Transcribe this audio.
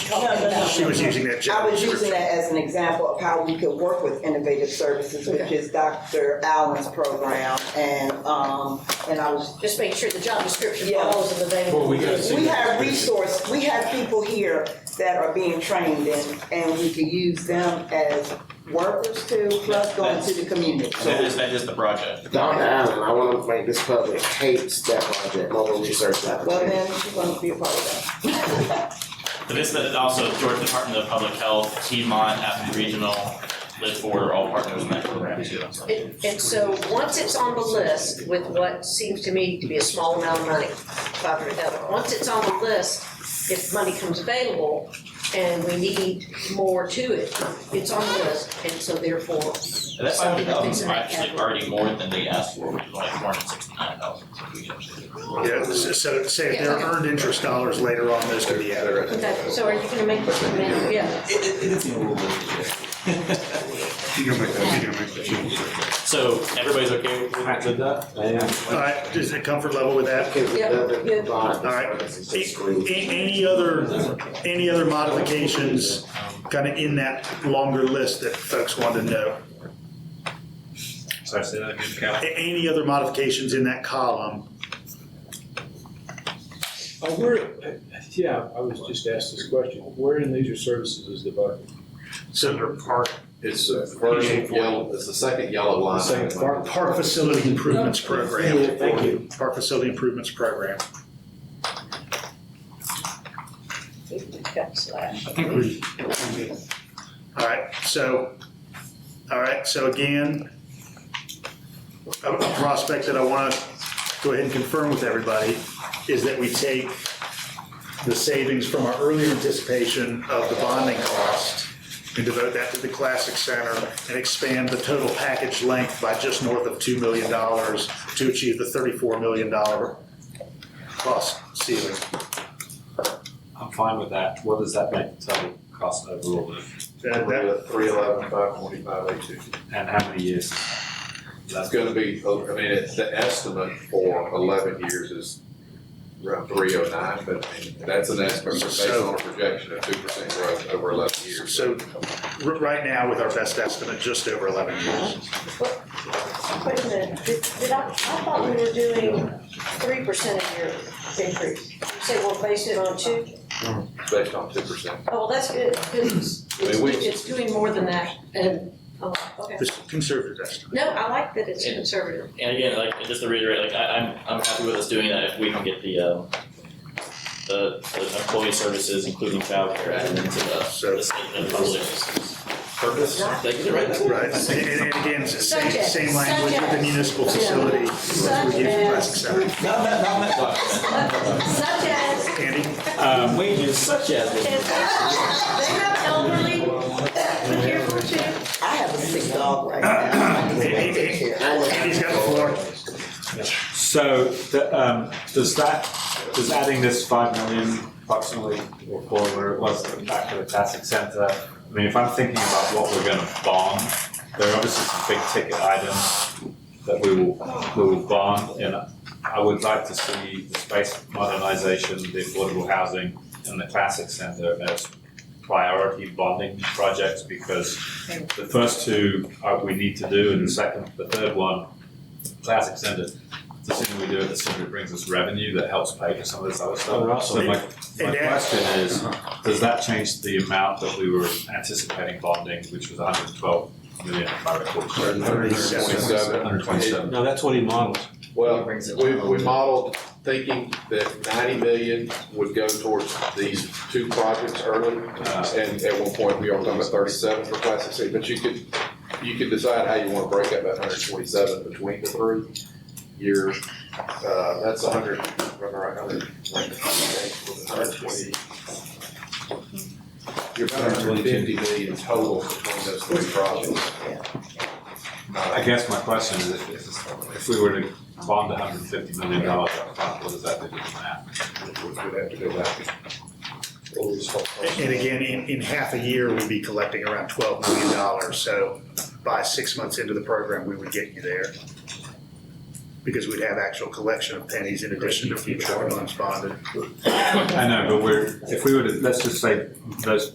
talking about. She was using that job I was using description. that as an example of how we could work with innovative services, which is Dr. Allen's program. And, um, and I was Just make sure the job description Yeah. follows the available. Well, we gotta see. We have resource, we have people here that are being trained and, and we can use them as workers too, plus going to the community. That is, that is the project. Donna Allen, I want to make this public, hates that project, mobile research Well, lab. then she's gonna be a part of But this, that also Georgia Department of Public Health, Tmont, Athens Regional, Live Forward are all partners in that program too. And, and so, once it's on the list with what seems to me to be a small amount of money, five hundred thousand, once it's on the list, if money comes available and we need more to it, it's on the list, and so therefore, And that five hundred thousand is actually already more than they asked for, which is like four hundred sixty-nine thousand. Yeah, s- so say if there are earned interest dollars later on, those could be added. Okay, so are you gonna make this amendment? Yeah, It, it, it's a little bit. You can make that, you can make that. So everybody's okay with, with that? I am. All right, is it comfort level with that? Because the Yeah, yeah. other bond All right. services is screwed. A- Any other, any other modifications kind of in that longer list that folks want to know? So I say that again, Cal. A- Any other modifications in that column? Uh, where, yeah, I was just asked this question, where in leisure services is the bucket? So park, It's the first yellow, it's the second yellow Uh, line. Second part. park facility improvements program. Thank you. Park facility improvements program. cut slash. I think we. All right, so, all right, so again, a a prospect that I want to go ahead and confirm with everybody is that we take the savings from our earlier anticipation of the bonding cost and devote that to the Classic Center and expand the total package length by just north of $2 million to achieve the $34 million cost ceiling. I'm fine with that. What does that make the total cost overall then? That- that- Three eleven, five forty-five, eight fifty. And how many years? That's gonna be, I mean, it's, the estimate for eleven years is around three oh nine, but I mean, that's an estimate based on a projection of two percent growth over eleven years. So, r- right now, with our best estimate, just over 11 years. Wait a minute, did, did I, I thought we were doing three percent a year increase. You said we'll base it on two? Based on two percent. Oh, well, that's good, because it's, I mean, we- it's doing more than that, and, oh, okay. This conservative estimate. No, I like that it's It- conservative. And again, like, just to reiterate, like, I, I'm, I'm happy with us doing that if we can get the, um, the, the employee services, including childcare, added into the, So- the statement of public purpose. Did I get it right? Right, and, and again, it's the same, Subject, same language with the subject. municipal facility. Subject. we use for plastic surgery. Not that, not that Such as, Andy, Um, wages such as. and they have elderly, we care for too. that. I have a sick dog right now. I need to take care of it. Andy's got the floor. So, the, um, does that, does adding this five million approximately, or four, where it was, back to the classic center, I mean, if I'm thinking about what we're gonna bond, there are obviously some big ticket items that we will, we will bond, and I would like to see the space modernization, the affordable housing, and the classic center as priority bonding projects, because the first two are, we need to do, and the second, the third one, classic center, the sooner we do it, the sooner it brings us revenue that helps pay for some of this other stuff. So my, my And that- question is, does that change the amount that we were anticipating bonding, which was hundred and twelve million, if I recall correctly? Hundred twenty-seven. Well, No, that's what he modeled. we, we modeled thinking that ninety million would go towards these two projects early. Uh, And at one point, we are talking about thirty-seven for classic C, but you could, you could decide how you wanna break up that hundred forty-seven between the three. Your, uh, that's a hundred, run around, hundred, hundred twenty. You're about hundred fifty million total between those three projects. I guess my question is, if, if- if we were to bond hundred and fifty million dollars upfront, what does that do to the math? We'd have to go back. And again, in, in half a year, we'd be collecting around twelve million dollars, so by six months into the program, we would get you there. because we'd have actual collection of pennies in addition to future unspotted. I know, but we're, if we were to, let's just say those